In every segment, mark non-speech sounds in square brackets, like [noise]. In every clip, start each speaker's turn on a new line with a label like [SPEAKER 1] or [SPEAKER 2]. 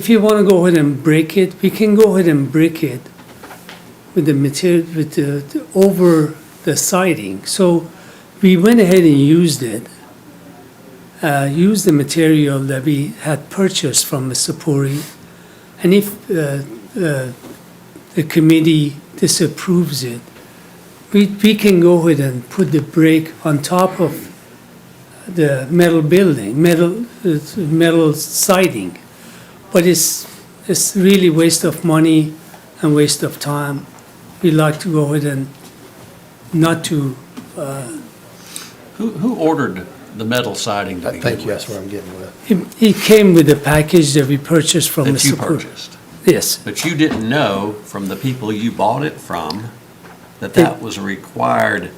[SPEAKER 1] If you want to go ahead and break it, we can go ahead and break it with the material, with the, the- over the siding. So we went ahead and used it, uh, used the material that we had purchased from Mr. Puri. And if, uh, uh, the committee disapproves it, we, we can go ahead and put the brick on top of the metal building, metal, uh, metal siding. But it's, it's really waste of money and waste of time. We like to go ahead and not to, uh,
[SPEAKER 2] Who, who ordered the metal siding to
[SPEAKER 3] I
[SPEAKER 2] begin
[SPEAKER 3] think
[SPEAKER 2] with?
[SPEAKER 3] that's what I'm getting with.
[SPEAKER 1] it, it came with a package that we purchased from
[SPEAKER 2] That you
[SPEAKER 1] Mr. Pur-
[SPEAKER 2] purchased?
[SPEAKER 1] Yes,
[SPEAKER 2] But you didn't know from the people you bought it from that that was a required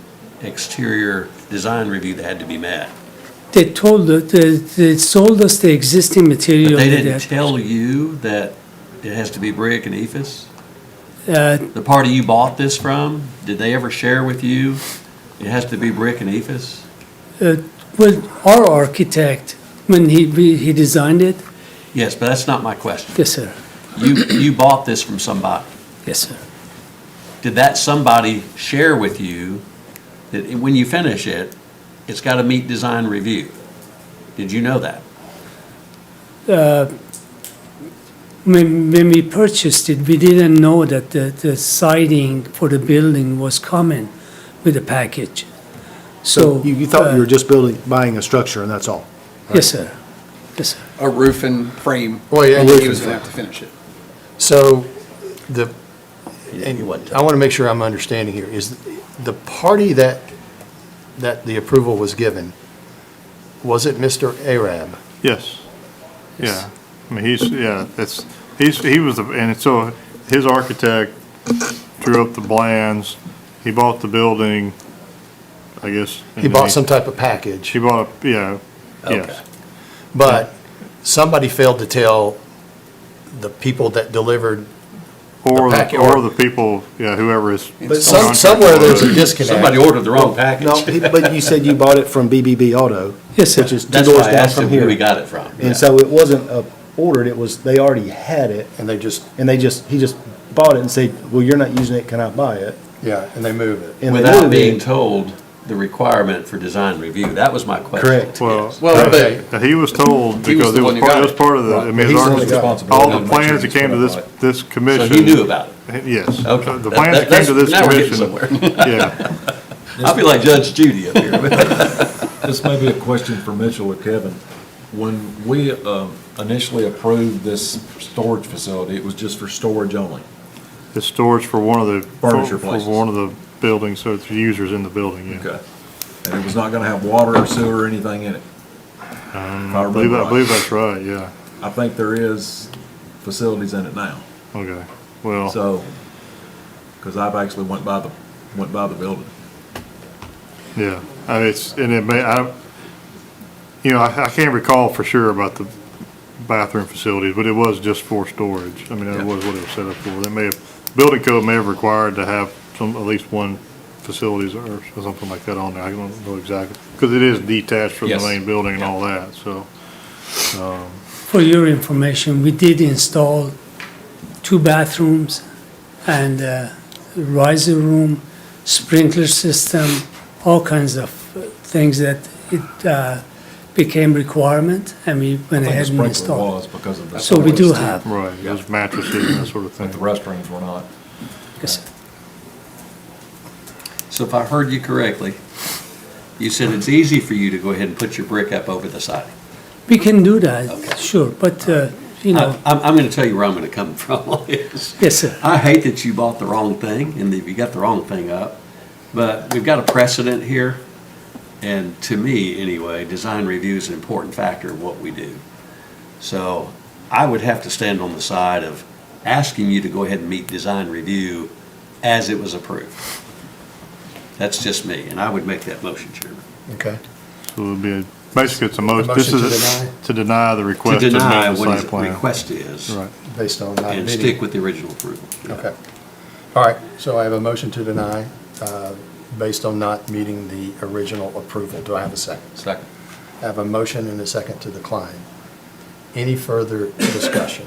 [SPEAKER 2] exterior design review that had to be met.
[SPEAKER 1] they told, the- they, they sold us the existing material.
[SPEAKER 2] But they
[SPEAKER 1] that-
[SPEAKER 2] didn't tell you that it has to be brick and ephes?
[SPEAKER 1] Uh,
[SPEAKER 2] The party you bought this from, did they ever share with you it has to be brick and ephes?
[SPEAKER 1] uh, well, our architect, when he, we- he designed it,
[SPEAKER 2] Yes, but that's not my question.
[SPEAKER 1] yes, sir,
[SPEAKER 2] You, you bought this from somebody.
[SPEAKER 1] yes, sir.
[SPEAKER 2] did that somebody share with you that it- when you finish it, it's got to meet design review? Did you know that?
[SPEAKER 1] When, when we purchased it, we didn't know that the, the siding for the building was coming with the package. So.
[SPEAKER 3] You, you thought you were
[SPEAKER 1] uh,
[SPEAKER 3] just building, buying a structure and that's all?
[SPEAKER 1] Yes, sir. Yes, sir.
[SPEAKER 4] a roof and frame.
[SPEAKER 3] Well, yeah,
[SPEAKER 4] and
[SPEAKER 3] roof
[SPEAKER 4] He was
[SPEAKER 3] and
[SPEAKER 4] gonna have to finish it.
[SPEAKER 3] So the,
[SPEAKER 2] You wasn't.
[SPEAKER 3] I want to make sure I'm understanding here, is the party that, that the approval was given, was it Mr. Arab?
[SPEAKER 5] Yes. Yeah. I mean, he's, yeah, that's, he's, he was, the and so his architect drew up the plans. He bought the building, I guess. and
[SPEAKER 3] He
[SPEAKER 5] then
[SPEAKER 3] bought some type of package,
[SPEAKER 5] He bought, a- yeah, yes.
[SPEAKER 3] but somebody failed to tell the people that delivered,
[SPEAKER 5] Or,
[SPEAKER 3] The packet
[SPEAKER 5] the- or
[SPEAKER 3] or-
[SPEAKER 5] the people, yeah, whoever is.
[SPEAKER 3] but some, somewhere there's a disconnect.
[SPEAKER 2] Somebody ordered the wrong package.
[SPEAKER 3] No, he- but you said you bought it from BBB Auto.
[SPEAKER 1] Yes, sir.
[SPEAKER 3] Which is two
[SPEAKER 2] That's why
[SPEAKER 3] doors
[SPEAKER 2] I
[SPEAKER 3] down
[SPEAKER 2] asked
[SPEAKER 3] from
[SPEAKER 2] him who
[SPEAKER 3] here.
[SPEAKER 2] we got it from.
[SPEAKER 3] And so it wasn't uh, ordered, it was, they already had it,
[SPEAKER 6] And they just,
[SPEAKER 3] and they just, he just bought it and said, well, you're not using it, can I buy it?
[SPEAKER 6] yeah, and they move it.
[SPEAKER 3] And they
[SPEAKER 2] Without
[SPEAKER 3] moved
[SPEAKER 2] being
[SPEAKER 3] it.
[SPEAKER 2] told the requirement for design review. That was my question.
[SPEAKER 3] Correct.
[SPEAKER 5] Well,
[SPEAKER 2] Yes.
[SPEAKER 4] Well,
[SPEAKER 3] Okay.
[SPEAKER 4] but
[SPEAKER 5] that he was told
[SPEAKER 4] He was
[SPEAKER 5] because
[SPEAKER 4] the
[SPEAKER 5] it
[SPEAKER 4] one
[SPEAKER 5] was
[SPEAKER 4] who
[SPEAKER 5] part,
[SPEAKER 4] got
[SPEAKER 5] it was
[SPEAKER 4] it.
[SPEAKER 5] part of the,
[SPEAKER 6] Right.
[SPEAKER 5] Uh, I mean,
[SPEAKER 3] He's
[SPEAKER 5] his
[SPEAKER 3] the one who
[SPEAKER 5] architect-
[SPEAKER 3] got
[SPEAKER 6] it.
[SPEAKER 5] all
[SPEAKER 6] Gotta
[SPEAKER 5] the
[SPEAKER 6] make
[SPEAKER 5] plans
[SPEAKER 6] sure
[SPEAKER 5] that
[SPEAKER 6] he's
[SPEAKER 5] came to
[SPEAKER 6] put
[SPEAKER 5] this,
[SPEAKER 6] it on
[SPEAKER 5] this commission.
[SPEAKER 2] So he knew about it.
[SPEAKER 5] Yes.
[SPEAKER 2] Okay.
[SPEAKER 5] The
[SPEAKER 2] That-
[SPEAKER 5] plans that came
[SPEAKER 2] that's-
[SPEAKER 5] to this
[SPEAKER 2] now we're getting
[SPEAKER 5] commission.
[SPEAKER 2] somewhere.
[SPEAKER 5] Yeah.
[SPEAKER 2] I feel like Judge Judy up here. [laughs]
[SPEAKER 7] This may be a question for Mitchell or Kevin. When we um, initially approved this storage facility, it was just for storage only.
[SPEAKER 5] It's storage for one of the.
[SPEAKER 7] Furniture
[SPEAKER 5] for-
[SPEAKER 7] places.
[SPEAKER 5] For one of the buildings, so it's users in the building, yeah.
[SPEAKER 7] And it was not going to have water or sewer or anything in it. If
[SPEAKER 5] I Um, believe,
[SPEAKER 7] remember
[SPEAKER 5] I
[SPEAKER 7] right.
[SPEAKER 5] believe that's right, yeah,
[SPEAKER 7] I think there is facilities in it now.
[SPEAKER 5] okay, well,
[SPEAKER 7] So, because I've actually went by the, went by the building.
[SPEAKER 5] yeah, I mean, it's, and it may, I, you know, I, I can't recall for sure about the bathroom facilities, but it was just for storage, I mean,
[SPEAKER 7] Yeah.
[SPEAKER 5] that was what it was set up for, they may have, building code may have required to have some, at least one facilities or or something like that on there, I don't know exactly, because it is detached from the
[SPEAKER 7] Yes.
[SPEAKER 5] main building and
[SPEAKER 7] Yeah.
[SPEAKER 5] all that, so,
[SPEAKER 1] For your information, we did install two bathrooms and a riser room, sprinkler system, all kinds of things that it uh, became requirement, and we went
[SPEAKER 7] I think the
[SPEAKER 1] ahead and
[SPEAKER 7] sprinkler
[SPEAKER 1] installed.
[SPEAKER 7] was because of the.
[SPEAKER 1] So we do
[SPEAKER 7] toilets,
[SPEAKER 1] have,
[SPEAKER 5] right, there's mattresses and that sort of
[SPEAKER 7] But the
[SPEAKER 5] thing.
[SPEAKER 7] restrooms were not.
[SPEAKER 1] yes, sir.
[SPEAKER 2] So if I heard you correctly, you said it's easy for you to go ahead and put your brick up over the siding.
[SPEAKER 1] we can do
[SPEAKER 2] Okay.
[SPEAKER 1] that, sure, but, uh, you
[SPEAKER 2] I-
[SPEAKER 1] know,
[SPEAKER 2] I'm, I'm going to tell you where I'm going to come [laughs] from on this.
[SPEAKER 1] yes, sir,
[SPEAKER 2] I hate that you bought the wrong thing and that you got the wrong thing up, but we've got a precedent here. And to me, anyway, design review is an important factor in what we do. So I would have to stand on the side of asking you to go ahead and meet design review as it was approved. That's just me, and I would make that motion, Chairman.
[SPEAKER 3] Okay.
[SPEAKER 5] So it'd be, a- basically, it's a most,
[SPEAKER 3] A
[SPEAKER 5] this
[SPEAKER 3] motion
[SPEAKER 5] is,
[SPEAKER 3] to
[SPEAKER 5] a- to deny the
[SPEAKER 2] To
[SPEAKER 5] request.
[SPEAKER 2] deny
[SPEAKER 5] amend the
[SPEAKER 2] what his
[SPEAKER 5] site plan.
[SPEAKER 2] request is
[SPEAKER 5] Right.
[SPEAKER 3] Based on not
[SPEAKER 2] and
[SPEAKER 3] bidding.
[SPEAKER 2] stick with the original approval.
[SPEAKER 3] Okay. All right, so I have a motion to deny, uh, based on not meeting the original approval. Do I have a second?
[SPEAKER 2] Second.
[SPEAKER 3] I have a motion and a second to decline. Any further discussion?